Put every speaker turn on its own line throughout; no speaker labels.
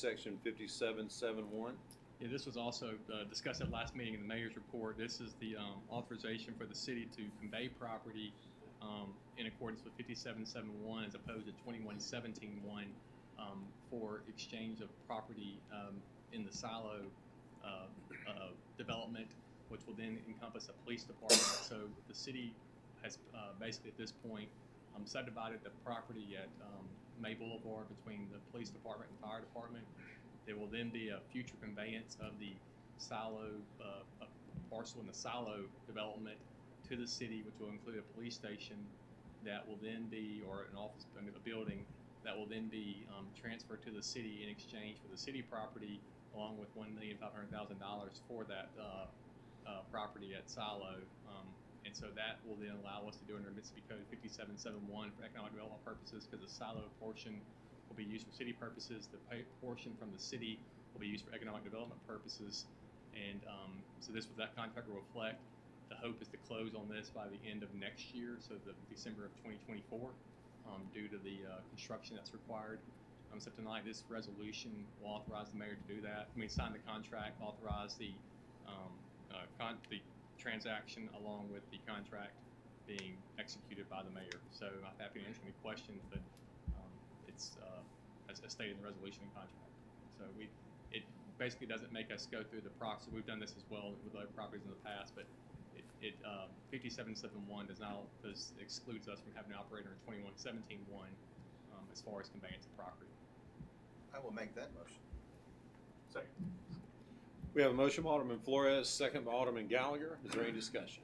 section fifty-seven, seven, one.
Yeah, this was also uh, discussed at last meeting in the mayor's report. This is the um, authorization for the city to convey property um, in accordance with 5771 as opposed to 21171 um, for exchange of property um, in the silo uh, uh, development, which will then encompass a police department. So the city has uh, basically at this point um, subdivided the property at um, May Boulevard between the police department and fire department. There will then be a future conveyance of the silo, uh, a parcel in the silo development to the city, which will include a police station that will then be, or an office, a building, that will then be um, transferred to the city in exchange for the city property, along with one million five hundred thousand dollars for that uh, uh, property at Silo. Um, and so that will then allow us to do under Mississippi Code fifty-seven seven one for economic development purposes, because the Silo portion will be used for city purposes. The pa- portion from the city will be used for economic development purposes. And um, so this, that contract will reflect. The hope is to close on this by the end of next year, so the December of 2024 um, due to the uh, construction that's required. Um, so tonight, this resolution will authorize the mayor to do that. I mean, sign the contract, authorize the um, uh, con- the transaction along with the contract being executed by the mayor. So I'm happy to answer any questions, but um, it's uh, as, as stated in the resolution and contract. So we it basically doesn't make us go through the process. We've done this as well with other properties in the past, but it, it, uh, fifty-seven seven one does not, does excludes us from having an operator in twenty-one seventeen one, um, as far as conveyance of property.
I will make that motion.
We have a motion by Alderman Flores, second by Alderman Gallagher. Is there any discussion?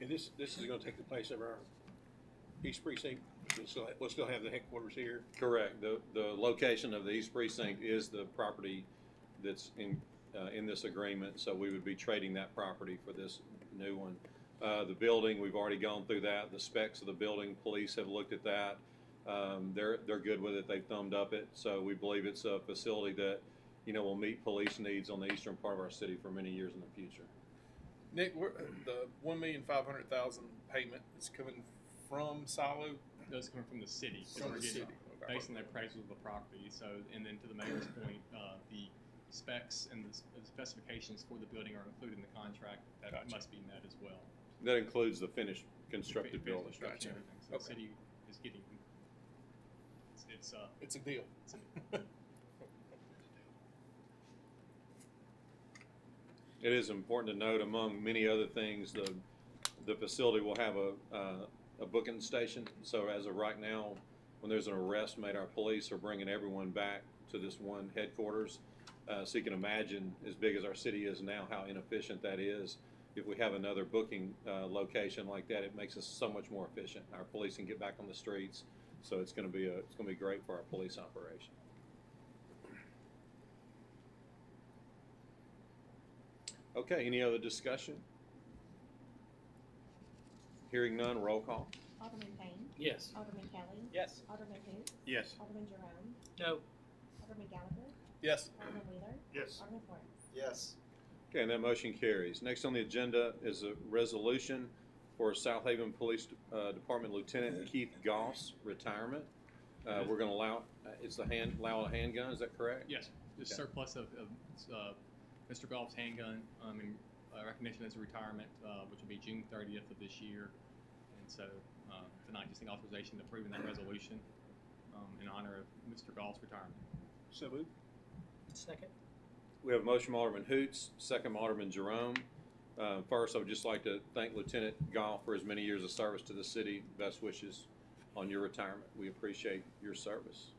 And this, this is gonna take the place of our East Precinct, we'll still, we'll still have the headquarters here.
Correct. The, the location of the East Precinct is the property that's in, uh, in this agreement, so we would be trading that property for this new one. Uh, the building, we've already gone through that. The specs of the building, police have looked at that. Um, they're, they're good with it. They've thumbed up it. So we believe it's a facility that, you know, will meet police needs on the eastern part of our city for many years in the future.
Nick, where, the one million five hundred thousand payment is coming from Silo.
Those come from the city. 'cause
From
we're
the
getting-
city.
Based on the appraisal of the property, so, and then to the mayor's point, uh, the specs and the s- the specifications for the building are included in the contract. That
Gotcha.
must be met as well.
That includes the finished constructed
Finished
building.
Construction,
Gotcha.
and everything. So the
Okay.
city is getting, it's, it's, uh,
It's a deal.
it's a-
It is important to note, among many other things, the, the facility will have a, uh, a booking station. So as of right now, when there's an arrest made, our police are bringing everyone back to this one headquarters. Uh, so you can imagine, as big as our city is now, how inefficient that is. If we have another booking, uh, location like that, it makes us so much more efficient. Our police can get back on the streets, so it's gonna be a, it's gonna be great for our police operation. Okay, any other discussion? Hearing none, roll call.
Alderman Payne.
Yes.
Alderman Kelly.
Yes.
Alderman who?
Yes.
Alderman Jerome.
No.
Alderman Gallagher.
Yes.
Alderman Wheeler.
Yes.
Alderman Flores.
Yes,
Okay, and that motion carries. Next on the agenda is a resolution for South Haven Police uh, Department Lieutenant Keith Goss retirement. Uh, We're gonna allow, uh, it's the hand, allow a handgun, is that correct?
Yes, the
Okay.
surplus of, of, uh, Mr. Goff's handgun, um, in uh, recognition as a retirement, uh, which will be June thirtieth of this year. And so, uh, tonight, just an authorization to approve that resolution, um, in honor of Mr. Goff's retirement.
So moved?
Second.
We have a motion by Alderman Hoots, second by Alderman Jerome. Uh, First, I would just like to thank Lieutenant Goff for his many years of service to the city. Best wishes on your retirement. We appreciate your service.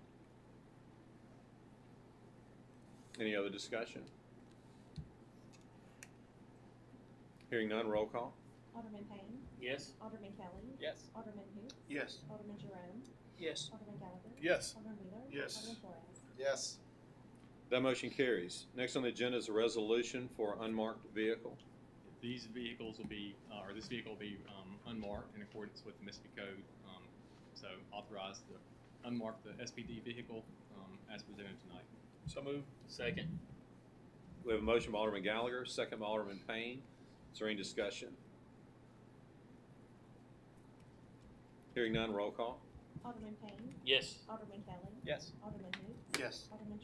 Any other discussion? Hearing none, roll call.
Alderman Payne.
Yes.
Alderman Kelly.
Yes.
Alderman who?
Yes.
Alderman Jerome.
Yes.
Alderman Gallagher.
Yes.
Alderman Wheeler.
Yes.
Alderman Flores.
yes,
That motion carries. Next on the agenda is a resolution for unmarked vehicle.
These vehicles will be, uh, or this vehicle will be, um, unmarked in accordance with the Mississippi Code, um, so authorize the, unmark the SPD vehicle, um, as presented tonight.
So move.
Second.
We have a motion by Alderman Gallagher, second by Alderman Payne. Is there any discussion? Hearing none, roll call.
Alderman Payne.
Yes.
Alderman Kelly.
Yes.
Alderman who?
Yes.
Alderman